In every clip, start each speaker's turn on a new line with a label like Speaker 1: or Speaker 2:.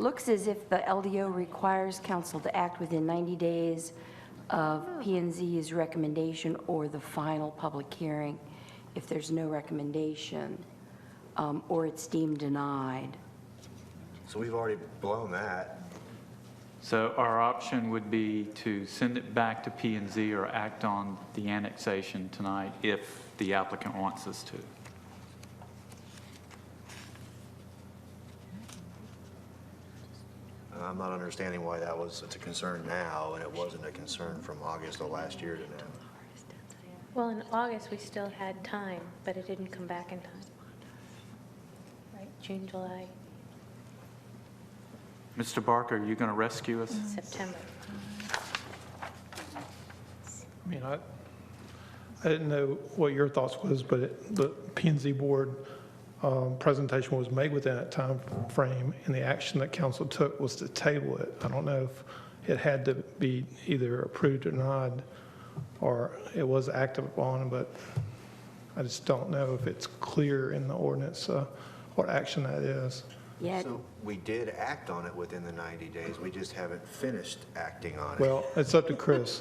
Speaker 1: looks as if the LDO requires council to act within 90 days of p and Z's recommendation or the final public hearing if there's no recommendation, um, or it's deemed denied.
Speaker 2: So we've already blown that.
Speaker 3: So our option would be to send it back to P and Z or act on the annexation tonight if the applicant wants us to.
Speaker 2: And Uh, I'm not understanding why that was, it's a concern now, and it wasn't a concern from August of last year to now.
Speaker 4: Well, in August, we still had time, but it didn't come back in time. Right, June, July,
Speaker 3: Mr. Barker, are you going to rescue us?
Speaker 4: September.
Speaker 5: I mean, I, I didn't know what your thoughts was, but it- the P and Z board um, presentation was made within that time frame, and the action that council took was to table it. I don't know if it had to be either approved or denied, or it was acted upon, but I just don't know if it's clear in the ordinance uh, what action that is.
Speaker 1: Yet,
Speaker 2: So we did act on it within the 90 days, we just haven't finished acting on it.
Speaker 5: Well, it's up to Chris,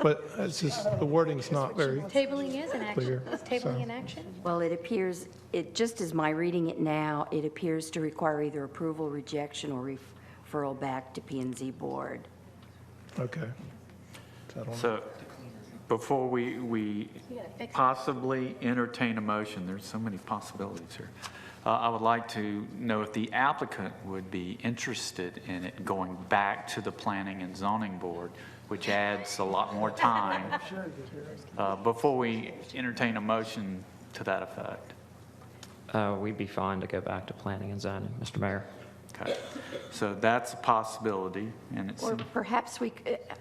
Speaker 5: but it's just, the wording's not very,
Speaker 4: Tabling is an action.
Speaker 5: Clear,
Speaker 4: Is
Speaker 5: so-
Speaker 4: tabling an action?
Speaker 1: well, it appears, it, just as my reading it now, it appears to require either approval, rejection, or referral back to p and Z board.
Speaker 5: okay. So I don't know.
Speaker 3: So before we, we
Speaker 4: You gotta fix it.
Speaker 3: possibly entertain a motion, there's so many possibilities here. Uh, I would like to know if the applicant would be interested in it going back to the Planning and Zoning Board, which adds a lot more time, uh, before we entertain a motion to that effect.
Speaker 6: Uh, We'd be fine to go back to planning and zoning, Mr. Mayor.
Speaker 3: Okay, so that's a possibility, and it's,
Speaker 1: Or perhaps we c- uh,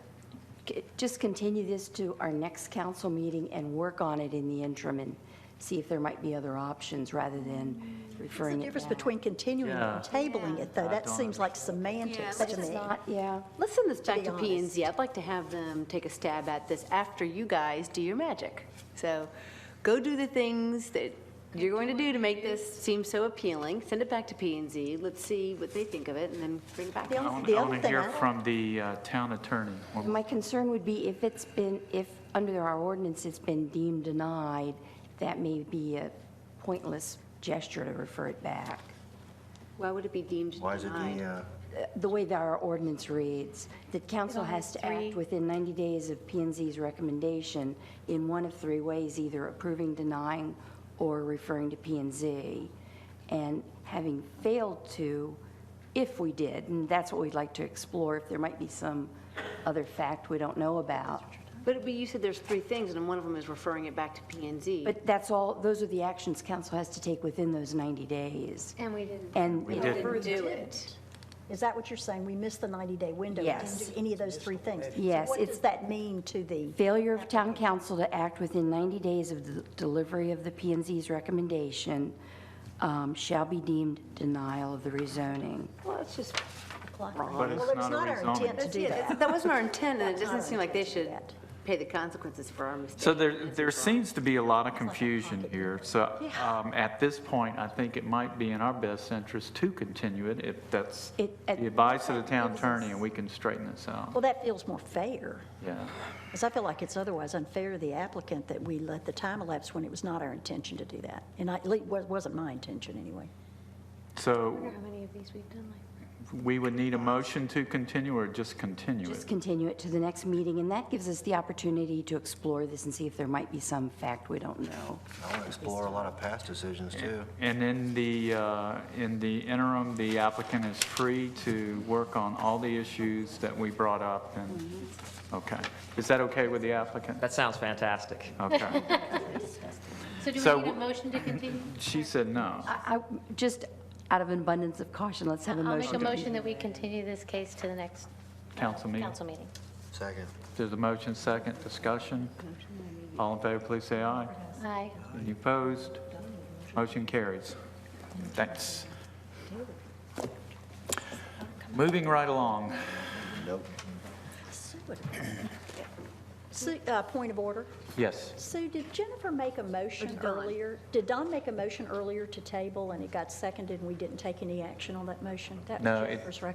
Speaker 1: c- just continue this to our next council meeting and work on it in the interim and see if there might be other options rather than
Speaker 7: What's
Speaker 1: referring it
Speaker 7: the Mm. difference
Speaker 1: back.
Speaker 7: between continuing and
Speaker 3: Yeah.
Speaker 7: tabling it, though?
Speaker 3: I
Speaker 7: That
Speaker 3: don't
Speaker 7: seems like semantics to
Speaker 1: It's
Speaker 7: me.
Speaker 1: not- Yeah,
Speaker 8: Let's send this back
Speaker 7: be
Speaker 8: to P and
Speaker 7: honest.
Speaker 8: Z. I'd like to have them take a stab at this after you guys do your magic. So go do the things that you're going to do to make this seem so appealing. Send it back to P and Z. Let's see what they think of it and then bring it back.
Speaker 7: The
Speaker 3: I
Speaker 7: only-
Speaker 3: want
Speaker 7: the
Speaker 3: to
Speaker 7: other thing
Speaker 3: hear
Speaker 7: I-
Speaker 3: from the uh, town attorney. Well,
Speaker 1: my concern would be if it's been, if under our ordinance it's been deemed denied, that may be a pointless gesture to refer it back.
Speaker 8: Why would it be deemed
Speaker 2: Why is it the,
Speaker 8: denied?
Speaker 2: uh,
Speaker 1: Uh, The way that our ordinance reads, that council
Speaker 4: only
Speaker 1: has to
Speaker 4: has
Speaker 1: act
Speaker 4: three-
Speaker 1: within 90 days of p and Z's recommendation in one of three ways, either approving, denying, or referring to p and Z. And having failed to, if we did, and that's what we'd like to explore, if there might be some other fact we don't know about.
Speaker 8: But but you said there's three things and one of them is referring it back to P and Z.
Speaker 1: But that's all, those are the actions council has to take within those 90 days.
Speaker 4: And we didn't.
Speaker 1: And
Speaker 3: We
Speaker 1: it-
Speaker 3: did.
Speaker 8: do it.
Speaker 7: Is that what you're saying? We missed the 90-day window? We
Speaker 1: Yes.
Speaker 7: didn't do any of those three things? So
Speaker 1: Yes,
Speaker 7: What
Speaker 1: it's-
Speaker 7: does that mean to the,
Speaker 1: Failure of town council to act within 90 days of the delivery of the p and Z's recommendation um, shall be deemed denial of the rezoning.
Speaker 8: Well, it's just,
Speaker 3: But it's
Speaker 7: well, it's
Speaker 3: not a
Speaker 7: not our
Speaker 3: rezoning.
Speaker 7: intent to do that.
Speaker 8: that wasn't our intent and it doesn't seem like they
Speaker 7: intent to do
Speaker 8: should
Speaker 7: that.
Speaker 8: pay the consequences for our mistakes.
Speaker 3: So there, there seems to be a lot of confusion here. So um, at this point, I think it might be in our best interest to continue it if that's
Speaker 1: It- uh, at-
Speaker 3: the advice of the town attorney and we can straighten this out.
Speaker 7: Well, that feels more fair,
Speaker 3: Yeah.
Speaker 7: because I feel like it's otherwise unfair to the applicant that we let the time elapse when it was not our intention to do that. And I, at least wa- wasn't my intention, anyway.
Speaker 4: I
Speaker 3: So
Speaker 4: wonder how many of these we've done like.
Speaker 3: we would need a motion to continue or just continue
Speaker 1: Just
Speaker 3: it?
Speaker 1: continue it to the next meeting, and that gives us the opportunity to explore this and see if there might be some fact we don't know.
Speaker 2: I want to explore a lot of past decisions, too.
Speaker 3: And in the, uh, in the interim, the applicant is free to work on all the issues that we brought up and, okay. Is that okay with the applicant?
Speaker 6: That sounds fantastic.
Speaker 3: Okay. So
Speaker 4: So do we need a
Speaker 3: w-
Speaker 4: motion to continue?
Speaker 3: She said no.
Speaker 1: I, I- just out of an abundance of caution, let's have a
Speaker 4: I'll make a
Speaker 1: motion.
Speaker 4: motion that we continue this case to the next
Speaker 3: Council meeting.
Speaker 4: council meeting.
Speaker 2: Second.
Speaker 3: There's a motion, second, discussion. All in favor, please say aye.
Speaker 4: Aye.
Speaker 3: Any opposed? Motion carries. Thanks. Moving right along.
Speaker 7: Sue, what- Sue, uh, point of order.
Speaker 3: Yes.
Speaker 7: Sue, did Jennifer make a motion earlier? Did Don make a motion earlier to table, and it got seconded, and we didn't take any action on that motion? That
Speaker 3: No,
Speaker 7: was
Speaker 3: it-
Speaker 7: Jennifer's recommendation.